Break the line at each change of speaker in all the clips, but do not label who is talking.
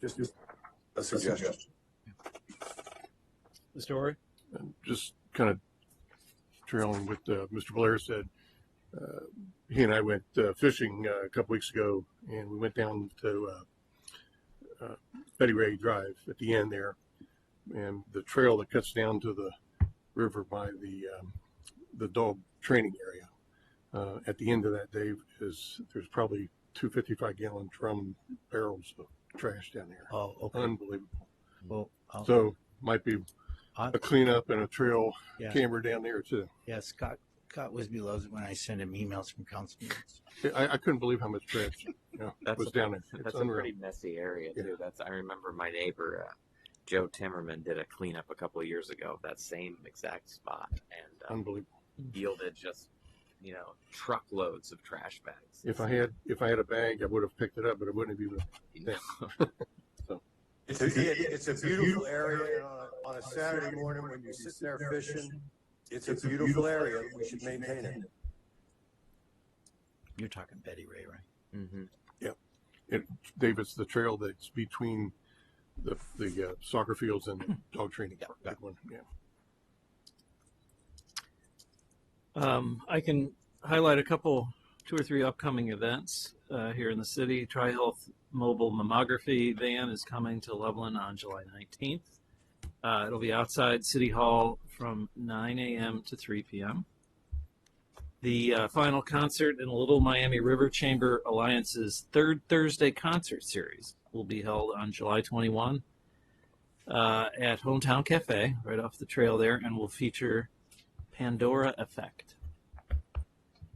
just do a suggestion.
Mr. Ori?
and just kind of trailing what uh, Mr. Blair said, uh, he and I went uh, fishing uh, a couple weeks ago, and we went down to uh, uh, Betty Ray Drive at the end there, and the trail that cuts down to the river by the um, the dog training area. Uh, at the end of that, Dave, is there's probably two 55 gallon drum barrels of trash down there.
Oh, okay.
Unbelievable.
Well, I'll-
Uh, So might be
I-
a cleanup and a trail
Yeah.
camera down there too.
yeah, Scott, Scott Wisby loves it when I send him emails from council meetings.
I, I couldn't believe how much trash you know,
That's
was
a-
down there. It's
That's a
unreal.
pretty messy area
Yeah.
too. That's I remember my neighbor uh, Joe Timmerman did a cleanup a couple of years ago of that same exact spot and um,
Unbelievable.
yielded just you know truckloads of trash bags.
If I had if I had a bag, I would have picked it up, but it wouldn't have even.
It's
It's
a,
a-
it- it's a beautiful area, and on a, on a Saturday morning when you're sitting there fishing, it's a beautiful area, we should maintain it.
You're talking Betty Ray, right?
Mm-hmm.
Dave, it's the trail that's between the the uh, soccer fields and the dog training.
Yeah,
park.
yeah.
That one, yeah.
Um, I can highlight a couple, two or three upcoming events uh, here in the city. TriHealth Mobile Mammography Van is coming to Loveland on July 19th. Uh, it'll be outside City Hall from 9 a.m. to 3 p.m. The uh, final concert in Little Miami River Chamber Alliance's third Thursday concert series will be held on July 21 uh, at Hometown Cafe, right off the trail there, and will feature Pandora Effect.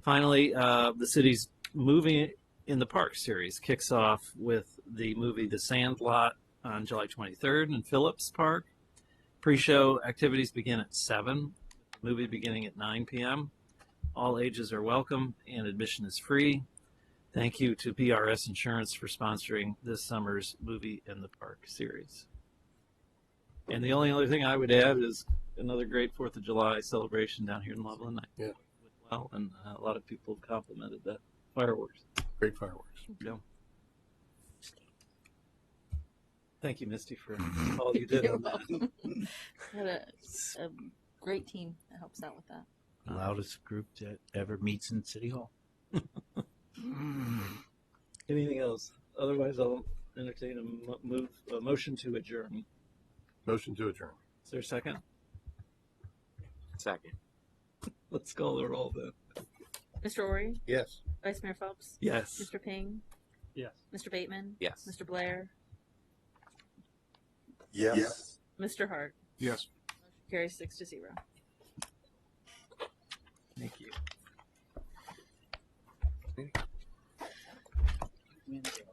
Finally, uh, the city's movie in the park series kicks off with the movie The Sandlot on July 23rd in Phillips Park. Pre-show activities begin at seven. Movie beginning at 9 p.m. All ages are welcome, and admission is free. Thank you to PRS Insurance for sponsoring this summer's movie in the park series. And the only other thing I would add is another great Fourth of July celebration down here in Loveland. I-
Yeah.
Well, and uh, a lot of people have complimented the fireworks.
Great fireworks.
Yeah. Thank you, Misty, for all you did.
You're
on that.
welcome. What a, a great team that helps out with that.
The loudest group that ever meets in City Hall. Mm.
Anything else? Otherwise, I'll entertain a mo- move a motion to adjourn.
Motion to adjourn.
Is there a second?
Second.
Let's call the roll then.
Mr. Ori,
Yes.
Vice Mayor Phelps,
Yes.
Mr. Ping,
Yes.
Mr. Bateman,
Yes.
Mr. Blair,
Yes.
Mr. Hart.
Yes.
Carries six to zero.
Thank you.